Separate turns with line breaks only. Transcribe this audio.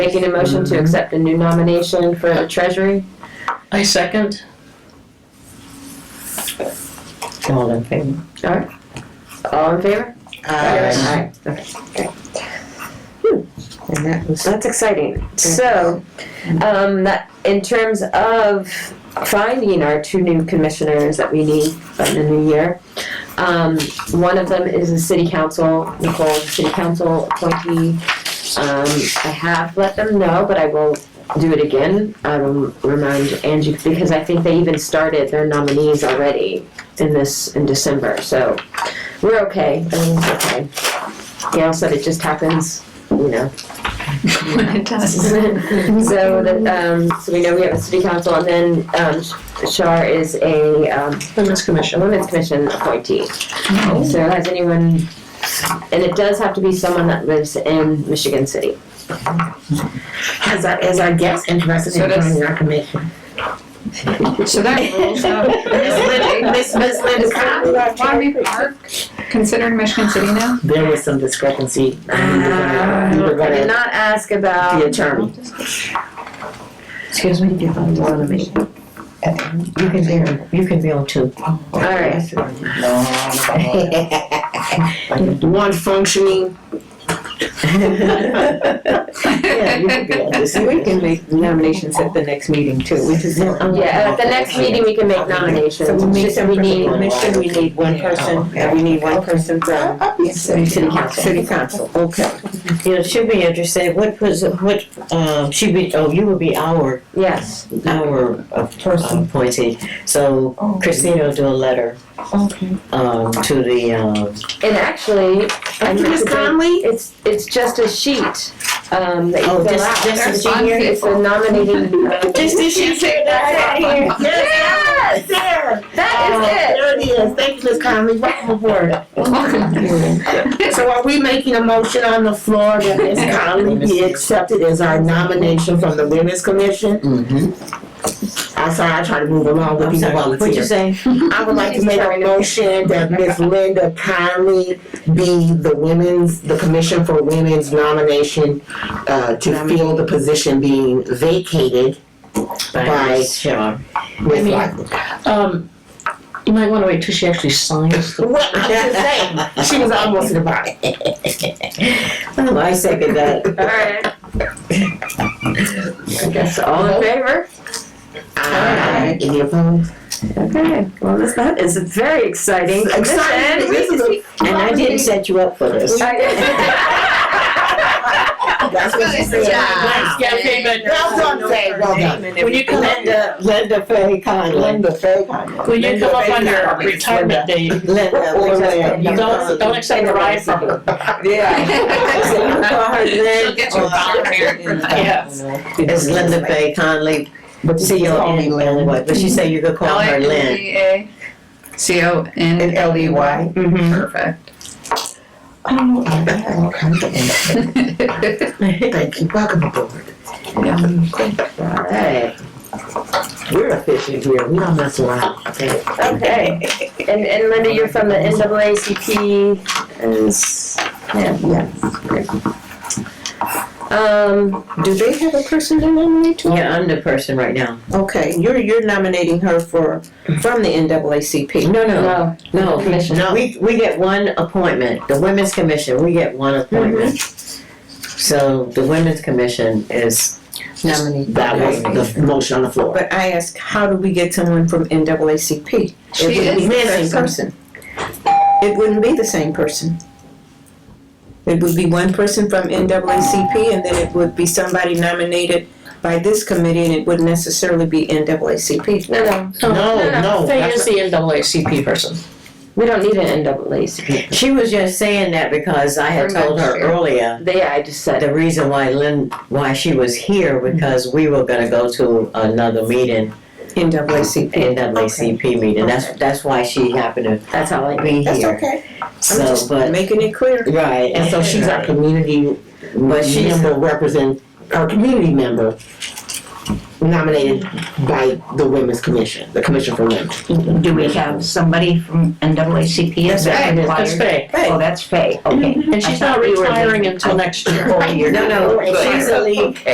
Making a motion to accept a new nomination for treasury?
I second.
All in favor?
All in favor?
Aye.
Okay.
And that was,
That's exciting. So, um, that, in terms of finding our two new commissioners that we need in the new year, um, one of them is the city council, Nicole, the city council appointee. Um, I have let them know, but I will do it again, um, remind Angie, because I think they even started their nominees already in this, in December, so we're okay, everything's okay. Gail said it just happens, you know,
It does.
so that, um, so we know we have a city council, and then, um, Shar is a, um,
Women's
a
Commission.
women's commission appointee. So has anyone, and it does have to be someone that lives in Michigan City.
as our, as our guest interested
So
in
does-
joining our commission.
So that rules out Miss Lynn,
Miss Lynn
Is that Wyoming Park considered Michigan City now?
There was some discrepancy. We were gonna- we
Ah,
were
I did
gonna-
not ask
The
about,
attorney.
Excuse me, you can be on me. You can be on, you can be on too.
all right,
One functioning.
Yeah, you can be on this. We can make nominations at the next meeting too, which is.
yeah, at the next meeting, we can make nominations.
So we
It's
need
just
some
we
from the
need-
commission, we need one person, and we need one person from
City council.
city council. Okay.
Yeah, it should be interesting, what was, what, um, she'd be, oh, you would be our,
Yes,
our uh, appointee. So Christina will do a letter,
Okay.
um, to the, um,
and actually, I
After
meant
Miss
to bring-
Conley?
it's, it's just a sheet, um, that you
Oh,
fill
just-
out.
just
There's fun
It's
people.
a nominating, um,
Just this year, say that right here. Yes, Sarah.
that is it.
There it is. Thank you, Ms. Conley. Welcome aboard. So are we making a motion on the floor that Ms. Conley be accepted as our nomination from the Women's Commission?
mhm.
I'm sorry, I try to move along with
I'm
these
sorry, what'd you
volunteers.
say?
I would like to make a motion that Ms. Linda Conley be the women's, the Commission for Women's nomination uh, to fill the position being vacated Bye.
Bye, Shaw.
with
mean-
like.
Um, you might wanna wait till she actually signs the.
What I'm just saying, she was almost in the bottom.
I second that.
Alright. I guess all in favor?
Aye. Any opposed?
Okay, well, this, that is a very exciting
Excited,
commission.
this is a-
And I didn't set you up for this.
That's what she said. Wow. That's what I'm saying, well done.
When you come up,
Linda, Linda Faye Conley.
Linda Faye Conley.
When you come up on your retirement day, you
Linda.
Or Lynn.
don't, don't accept a ride from her.
So you call her
She'll
Lynn,
get you a volunteer.
Yes.
it's Linda Faye Conley, but C O N L Y, but she said you could call her Lynn.
L-I-N-D-A.
in
C-O-N,
L E Y.
Mm-hmm.
perfect.
Thank you, welcome aboard.
Alright,
We're officially here, we don't mess around.
okay, and, and Linda, you're from the NAACP is, yeah, yes, great. Um,
Do they have a person to nominate to?
Yeah, I'm the person right now.
Okay, you're, you're nominating her for, from the NAACP.
No, no,
no,
no.
commission.
No, we, we get one appointment, the Women's Commission, we get one appointment.
Mm-hmm.
So the Women's Commission is,
Nominee.
That was the motion on the floor.
But I ask, how do we get someone from NAACP?
She
It wouldn't
is
be
the
the
same
same person. It wouldn't be the same person. It would be one person from NAACP and then it would be somebody nominated by this committee and it wouldn't necessarily be NAACP.
No, no,
No, no,
Faye
that's-
is the NAACP person.
we don't need an NAACP,
she was just saying that because I had told her earlier
they, I just said,
the reason why Lynn, why she was here, because we were gonna go to another meeting,
NAACP.
NAACP meeting, that's, that's why she happened
that's how I.
to be
That's
here.
okay. I'm
So,
just
but,
making it clear.
right.
And so she's our community
But she's-
member represent, our community member nominated by the Women's Commission, the Commission for Women.
Do we have somebody from NAACP? Is that
That's
required?
Faye.
Oh, that's Faye, okay.
And she's not retiring until next year.
Whole year.
No, no, she's a lead